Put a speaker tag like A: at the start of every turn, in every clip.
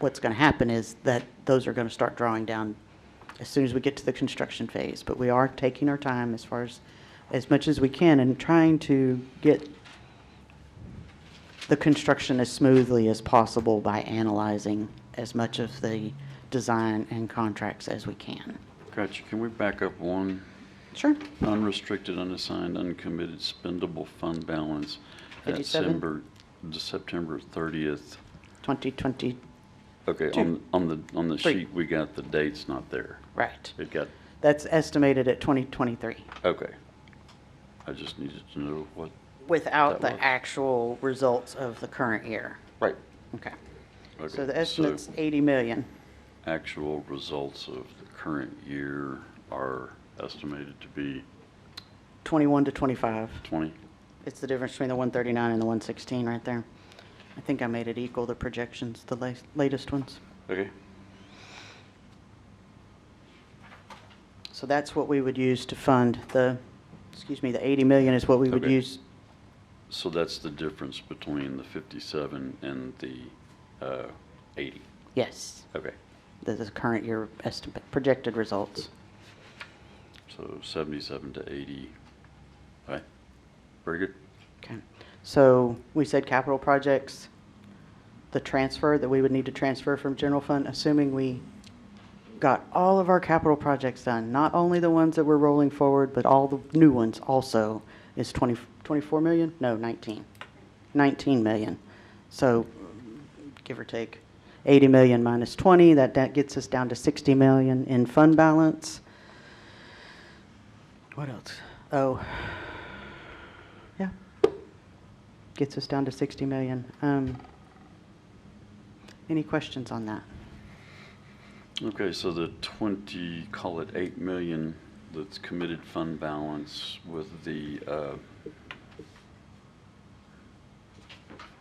A: what's going to happen is that those are going to start drawing down as soon as we get to the construction phase. But we are taking our time as far as, as much as we can and trying to get the construction as smoothly as possible by analyzing as much of the design and contracts as we can.
B: Gotcha. Can we back up one?
A: Sure.
B: Unrestricted, unassigned, uncommitted spendable fund balance at
A: 57?
B: December, the September 30th.
A: 2020,
B: Okay, on, on the, on the
A: Three.
B: sheet, we got the dates not there.
A: right.
B: It got,
A: That's estimated at 2023
B: okay. I just needed to know what,
A: without
B: That
A: the
B: was-
A: actual results of the current year.
B: right.
A: Okay.
B: Okay,
A: So the estimate's 80 million.
B: Actual results of the current year are estimated to be
A: 21 to 25.
B: 20?
A: It's the difference between the 139 and the 116 right there. I think I made it equal the projections, the la- latest ones.
B: Okay,
A: So that's what we would use to fund the, excuse me, the 80 million is what we would
B: Okay.
A: use.
B: so that's the difference between the 57 and the uh, 80.
A: Yes,
B: Okay.
A: the, the current year estimate, projected results.
B: So 77 to 80. All right, very good.
A: Okay. So we said capital projects, the transfer that we would need to transfer from general fund, assuming we got all of our capital projects done, not only the ones that we're rolling forward, but all the new ones also, is 20, 24 million? No, 19. 19 million. So give or take, 80 million minus 20, that, that gets us down to 60 million in fund balance. What else? Oh, yeah. Gets us down to 60 million. Um, Any questions on that?
B: Okay, so the 20, call it 8 million that's committed fund balance with the, uh,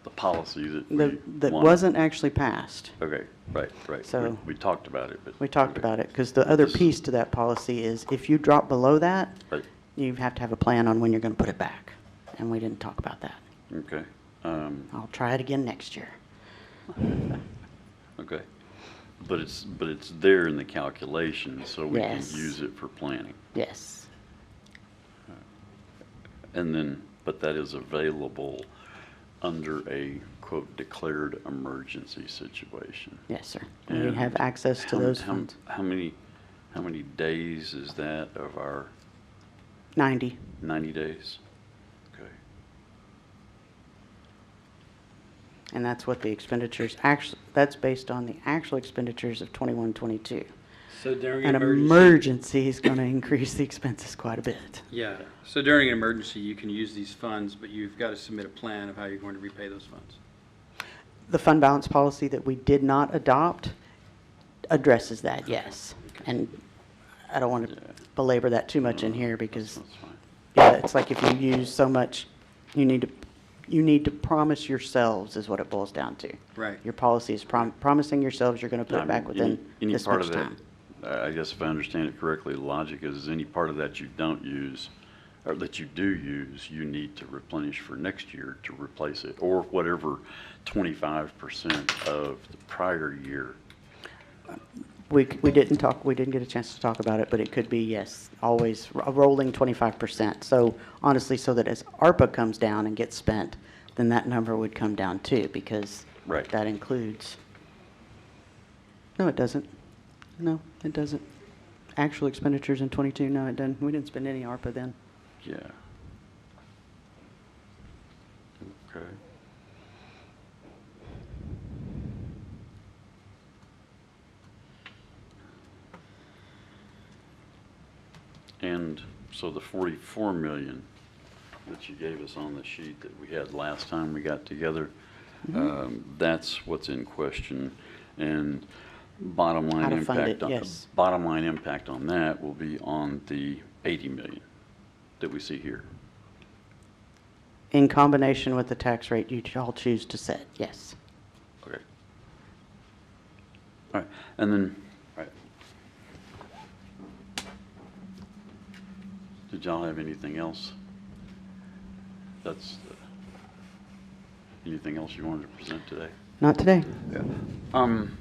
B: the policy that we
A: The- That
B: wanted.
A: wasn't actually passed.
B: Okay, right, right. We-
A: So-
B: We talked about it, but.
A: We talked
B: okay,
A: about it, because the other
B: This-
A: piece to that policy is if you drop below that,
B: Right,
A: you have to have a plan on when you're going to put it back. And we didn't talk about that.
B: okay, um,
A: I'll try it again next year.
B: okay. But it's, but it's there in the calculation, so we can
A: Yes.
B: use it for planning.
A: Yes.
B: And then, but that is available under a quote declared emergency situation.
A: Yes, sir. And we
B: And
A: have access to
B: How-
A: those
B: how-
A: funds.
B: How many, how many days is that of our
A: 90.
B: ninety days? Okay,
A: And that's what the expenditures, actually, that's based on the actual expenditures of 21, 22.
C: So during
A: An
C: an emergency,
A: emergency is going to increase the expenses quite a bit.
C: yeah. So during an emergency, you can use these funds, but you've got to submit a plan of how you're going to repay those funds.
A: The fund balance policy that we did not adopt addresses that, yes. And I don't want to belabor that too much in here because,
B: that's fine.
A: yeah, it's like if you use so much, you need to, you need to promise yourselves is what it boils down to.
C: Right.
A: Your policy is prom- promising yourselves you're going to put
B: I
A: it back
B: mean, any-
A: within
B: any
A: this
B: part
A: much
B: of that-
A: time.
B: I I guess if I understand it correctly, the logic is any part of that you don't use, or that you do use, you need to replenish for next year to replace it, or whatever twenty-five percent of the prior year.
A: We, c- we didn't talk, we didn't get a chance to talk about it, but it could be, yes, always a rolling twenty-five percent. So honestly, so that as ARPA comes down and gets spent, then that number would come down too, because
B: Right.
A: that includes. No, it doesn't. No, it doesn't. Actual expenditures in twenty-two, no, it doesn't. We didn't spend any ARPA then.
B: Yeah. Okay. And so the forty-four million that you gave us on the sheet that we had last time we got together,
A: Mm-hmm.
B: um, that's what's in question. And bottom
A: How
B: line
A: to fund
B: impact,
A: it,
B: on-
A: yes.
B: bottom line impact on that will be on the eighty million that we see here.
A: In combination with the tax rate you all choose to set, yes.
B: Okay. All right, and then, all right. Did y'all have anything else? That's, uh, anything else you wanted to present today?
A: Not today.
B: Um,